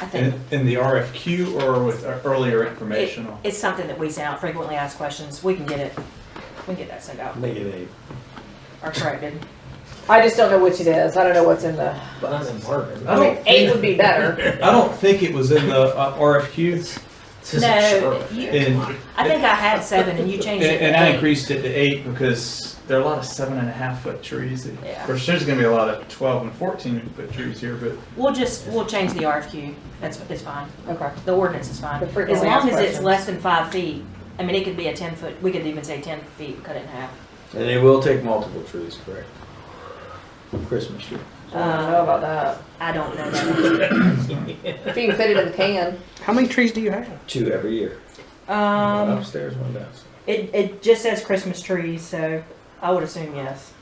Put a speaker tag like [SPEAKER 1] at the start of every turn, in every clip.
[SPEAKER 1] I think
[SPEAKER 2] In, in the RFQ or with uh, earlier
[SPEAKER 1] it,
[SPEAKER 2] informational?
[SPEAKER 1] it's something that we send out, frequently asked questions, we can get it, we can get that sent out,
[SPEAKER 3] Make it eight.
[SPEAKER 1] or corrected.
[SPEAKER 4] I just don't know which it is. I don't know what's in the,
[SPEAKER 3] But that's important.
[SPEAKER 4] I mean, eight would be better.
[SPEAKER 2] I don't think it was in the uh, RFQ,
[SPEAKER 1] No, you,
[SPEAKER 2] and,
[SPEAKER 1] I think I had seven and you changed
[SPEAKER 2] and,
[SPEAKER 1] it. to
[SPEAKER 2] and I
[SPEAKER 1] eight.
[SPEAKER 2] increased it to eight because there are a lot of seven and a half foot trees. that-
[SPEAKER 1] Yeah.
[SPEAKER 2] Of course, there's gonna be a lot of twelve and fourteen foot trees here, but
[SPEAKER 1] We'll just, we'll change the RFQ, that's, it's fine,
[SPEAKER 4] Okay.
[SPEAKER 1] the ordinance is fine.
[SPEAKER 4] The
[SPEAKER 1] As
[SPEAKER 4] frequently asked
[SPEAKER 1] long as it's
[SPEAKER 4] questions.
[SPEAKER 1] less than five feet, I mean, it could be a ten foot, we could even say ten feet, cut it in half.
[SPEAKER 3] And it will take multiple trees, correct? Christmas tree.
[SPEAKER 4] I don't know about that.
[SPEAKER 1] I don't know that.
[SPEAKER 4] If you can fit it in the can.
[SPEAKER 5] How many trees do you have?
[SPEAKER 3] Two every year. One
[SPEAKER 1] Um,
[SPEAKER 3] upstairs, one downstairs.
[SPEAKER 1] it, it just says Christmas trees, so I would assume yes.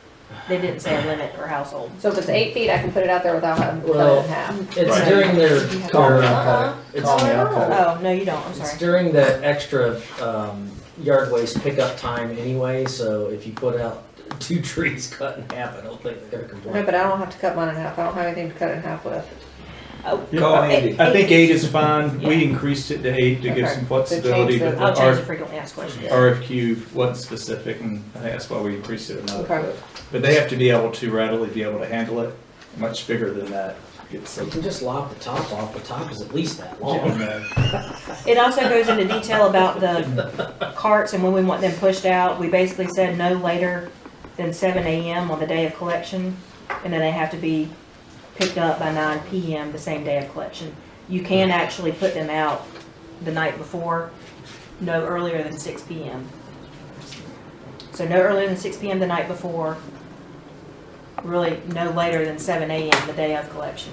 [SPEAKER 1] They didn't say a limit or household.
[SPEAKER 4] So if it's eight feet, I can put it out there without having to cut it
[SPEAKER 6] Well,
[SPEAKER 4] in half.
[SPEAKER 6] It's
[SPEAKER 2] Right.
[SPEAKER 6] during their,
[SPEAKER 3] Call me,
[SPEAKER 6] their,
[SPEAKER 4] Uh-huh.
[SPEAKER 3] I'll cut it.
[SPEAKER 6] It's-
[SPEAKER 3] Call me, I'll cut
[SPEAKER 1] Oh, no, you don't, I'm
[SPEAKER 6] it's
[SPEAKER 1] sorry.
[SPEAKER 6] during the extra, um, yard waste pickup time anyway, so if you put out two trees cut in half, I don't think they're gonna
[SPEAKER 4] No,
[SPEAKER 6] complain.
[SPEAKER 4] but I don't have to cut mine in half. I don't have anything to cut it in half with.
[SPEAKER 1] Oh,
[SPEAKER 3] it. Call
[SPEAKER 1] Eight-
[SPEAKER 3] Andy.
[SPEAKER 2] I think eight is fine.
[SPEAKER 1] Yeah.
[SPEAKER 2] We increased it to eight to give
[SPEAKER 4] Okay.
[SPEAKER 2] some flexibility,
[SPEAKER 4] So change
[SPEAKER 2] but
[SPEAKER 4] the-
[SPEAKER 1] I'll change the
[SPEAKER 2] the
[SPEAKER 1] frequently asked questions.
[SPEAKER 2] R- RFQ wasn't specific, and I think that's why we increased it another.
[SPEAKER 4] Okay.
[SPEAKER 2] But they have to be able to readily be able to handle it. Much bigger than that gets
[SPEAKER 6] You
[SPEAKER 2] some.
[SPEAKER 6] can just lop the top off, the top is at least that long.
[SPEAKER 2] Yeah.
[SPEAKER 1] It also goes into detail about the carts and when we want them pushed out. We basically said no later than seven AM on the day of collection, and then they have to be picked up by nine PM the same day of collection. You can actually put them out the night before, no earlier than six PM. So no earlier than six PM the night before, really no later than seven AM the day of collection.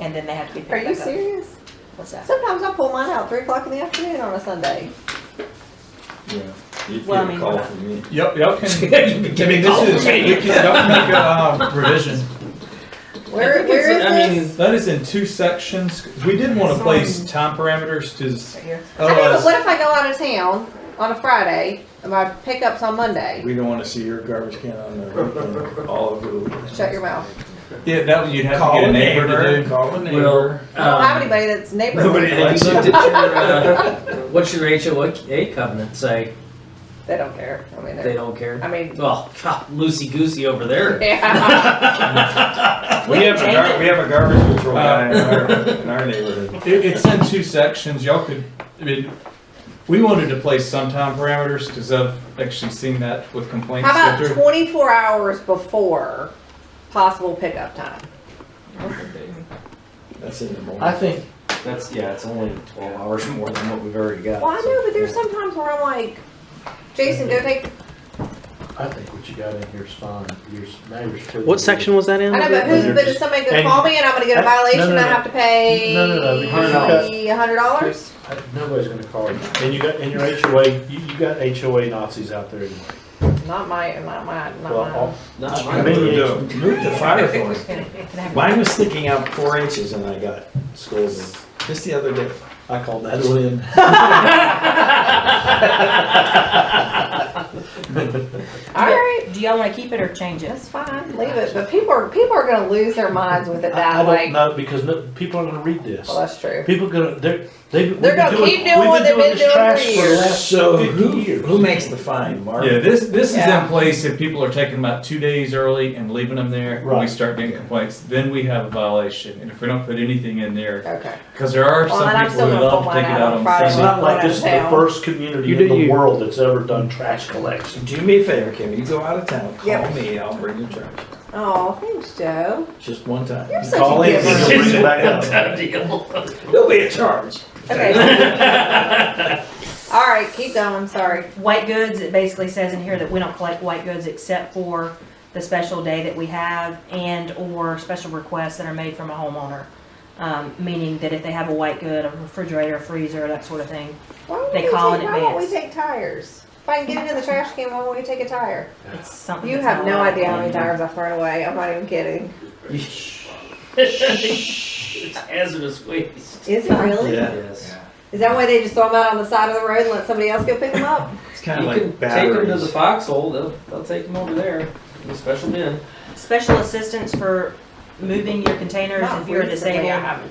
[SPEAKER 1] And then they have to be picked
[SPEAKER 4] Are
[SPEAKER 1] back up.
[SPEAKER 4] you serious?
[SPEAKER 1] What's that?
[SPEAKER 4] Sometimes I pull mine out three o'clock in the afternoon on a Sunday.
[SPEAKER 3] Yeah. You
[SPEAKER 1] Well, I
[SPEAKER 3] get a
[SPEAKER 1] mean,
[SPEAKER 3] call
[SPEAKER 1] we're not-
[SPEAKER 3] from me.
[SPEAKER 2] Yep, y'all can,
[SPEAKER 6] You can
[SPEAKER 2] I
[SPEAKER 6] give
[SPEAKER 2] mean,
[SPEAKER 6] me a call
[SPEAKER 2] this is,
[SPEAKER 6] for me.
[SPEAKER 2] we can, y'all can make a uh, revision.
[SPEAKER 4] Where, where is
[SPEAKER 2] I mean,
[SPEAKER 4] this?
[SPEAKER 2] that is in two sections. We did want to place time parameters because
[SPEAKER 1] Right here?
[SPEAKER 4] I know, but
[SPEAKER 2] otherwise,
[SPEAKER 4] what if I go out of town on a Friday and my pickup's on Monday?
[SPEAKER 3] We don't wanna see your garbage can on the, roof, all over the.
[SPEAKER 4] Shut your mouth.
[SPEAKER 2] yeah, that would- you'd have to get a neighbor to do.
[SPEAKER 3] Call a
[SPEAKER 6] Well,
[SPEAKER 3] neighbor.
[SPEAKER 4] I don't have
[SPEAKER 6] um,
[SPEAKER 4] anybody that's
[SPEAKER 3] Nobody
[SPEAKER 4] neighborhood.
[SPEAKER 6] have
[SPEAKER 3] likes
[SPEAKER 6] you looked
[SPEAKER 3] it.
[SPEAKER 6] at your, uh, what's your HOA covenant say?
[SPEAKER 4] They don't care. I mean,
[SPEAKER 6] They
[SPEAKER 4] they're,
[SPEAKER 6] don't care?
[SPEAKER 4] I mean,
[SPEAKER 6] Well, loosey goosey over there.
[SPEAKER 4] yeah.
[SPEAKER 3] We have a, gar- we have a garbage control guy in our, in our neighborhood.
[SPEAKER 2] It, it's in two sections. Y'all could, I mean, we wanted to place some time parameters because I've actually seen that with complaints.
[SPEAKER 4] How
[SPEAKER 2] go
[SPEAKER 4] about
[SPEAKER 2] through.
[SPEAKER 4] twenty-four hours before possible pickup time?
[SPEAKER 3] That's in the morning.
[SPEAKER 6] I think that's, yeah, it's only twelve hours more than what we've already got.
[SPEAKER 4] Well, I
[SPEAKER 6] so-
[SPEAKER 4] know, but there's sometimes where I'm like, Jason, go take,
[SPEAKER 7] I think what you got in here is fine. Yours, now you're still.
[SPEAKER 5] What section was that in?
[SPEAKER 4] I know, but who, but is somebody gonna call me and I'm gonna get a
[SPEAKER 7] And-
[SPEAKER 4] violation
[SPEAKER 7] no, no,
[SPEAKER 4] and I
[SPEAKER 7] no.
[SPEAKER 4] have to pay?
[SPEAKER 7] No, no, no, because
[SPEAKER 4] A hundred dollars?
[SPEAKER 7] I- Nobody's gonna call you. And you got, and your HOA, you, you got HOA Nazis out there anyway.
[SPEAKER 4] Not my, not my,
[SPEAKER 7] Well,
[SPEAKER 4] not
[SPEAKER 7] all-
[SPEAKER 6] Not
[SPEAKER 3] I
[SPEAKER 6] mine.
[SPEAKER 3] mean, you moved the fire force.
[SPEAKER 1] Can I have
[SPEAKER 3] Mine was sticking out four inches and I got scolded. Just the other day, I called that a win.
[SPEAKER 4] alright,
[SPEAKER 1] Do y'all wanna keep it or change it?
[SPEAKER 4] that's fine, leave it, but people are, people are gonna lose their minds with it
[SPEAKER 7] I, I
[SPEAKER 4] that
[SPEAKER 7] don't
[SPEAKER 4] like,
[SPEAKER 7] know, because no, people are gonna read this.
[SPEAKER 4] well, that's true.
[SPEAKER 7] People gonna, they're, they.
[SPEAKER 4] They're gonna keep doing what they've been doing for years.
[SPEAKER 3] So who,
[SPEAKER 7] Fifty years.
[SPEAKER 3] who makes the fine, Mark?
[SPEAKER 2] Yeah, this, this is
[SPEAKER 4] Yeah.
[SPEAKER 2] in place if people are taking about two days early and leaving them there. When we
[SPEAKER 7] Right.
[SPEAKER 2] start getting complaints, then we have a violation. And if we don't put anything in there,
[SPEAKER 4] Okay.
[SPEAKER 2] Because there are
[SPEAKER 4] Well, Oh, then
[SPEAKER 2] some
[SPEAKER 4] I'm
[SPEAKER 2] people
[SPEAKER 4] still
[SPEAKER 2] who
[SPEAKER 4] gonna
[SPEAKER 2] love
[SPEAKER 4] pull
[SPEAKER 2] to take it
[SPEAKER 4] mine out
[SPEAKER 2] out
[SPEAKER 4] on
[SPEAKER 2] on
[SPEAKER 4] Friday.
[SPEAKER 7] It's
[SPEAKER 2] Sunday.
[SPEAKER 7] not like this is the
[SPEAKER 4] Town.
[SPEAKER 7] first
[SPEAKER 5] You
[SPEAKER 7] community
[SPEAKER 5] do
[SPEAKER 7] in the
[SPEAKER 5] you.
[SPEAKER 7] world that's ever done trash collection.
[SPEAKER 3] Do me a favor, Kim, you go out of town, call
[SPEAKER 4] Yep.
[SPEAKER 3] me, I'll bring you trash,
[SPEAKER 4] Oh, thanks, Joe.
[SPEAKER 3] just one time.
[SPEAKER 4] You're such
[SPEAKER 7] Call
[SPEAKER 4] a
[SPEAKER 7] in, and
[SPEAKER 4] giver.
[SPEAKER 7] they'll bring it back up.
[SPEAKER 3] There'll be a charge.
[SPEAKER 4] Okay. Alright, keep going, sorry.
[SPEAKER 1] White goods, it basically says in here that we don't collect white goods except for the special day that we have and/or special requests that are made from a homeowner. Um, meaning that if they have a white good, a refrigerator, freezer, that sort of thing,
[SPEAKER 4] Why won't
[SPEAKER 1] They
[SPEAKER 4] we
[SPEAKER 1] call
[SPEAKER 4] take-
[SPEAKER 1] in
[SPEAKER 4] Why won't we
[SPEAKER 1] advance.
[SPEAKER 4] take tires? If I can get it in the trash can, why won't we take a tire?
[SPEAKER 1] it's something.
[SPEAKER 4] You
[SPEAKER 1] that's
[SPEAKER 4] have
[SPEAKER 1] not
[SPEAKER 4] no
[SPEAKER 1] allowed.
[SPEAKER 4] idea how many tires I've thrown away. I'm not even kidding.
[SPEAKER 6] It's hazardous waste.
[SPEAKER 4] Is it really?
[SPEAKER 3] Yeah.
[SPEAKER 6] Yes.
[SPEAKER 4] Is that why they just throw them out on the side of the road and let somebody else go pick them up?
[SPEAKER 3] It's
[SPEAKER 6] You
[SPEAKER 3] kinda
[SPEAKER 6] can
[SPEAKER 3] like
[SPEAKER 6] take them to the
[SPEAKER 3] batteries.
[SPEAKER 6] foxhole, they'll, they'll take them over there, the special bin.
[SPEAKER 1] Special assistance for moving your containers
[SPEAKER 4] Not
[SPEAKER 1] if you're
[SPEAKER 4] recently, I
[SPEAKER 1] disabled.
[SPEAKER 4] haven't.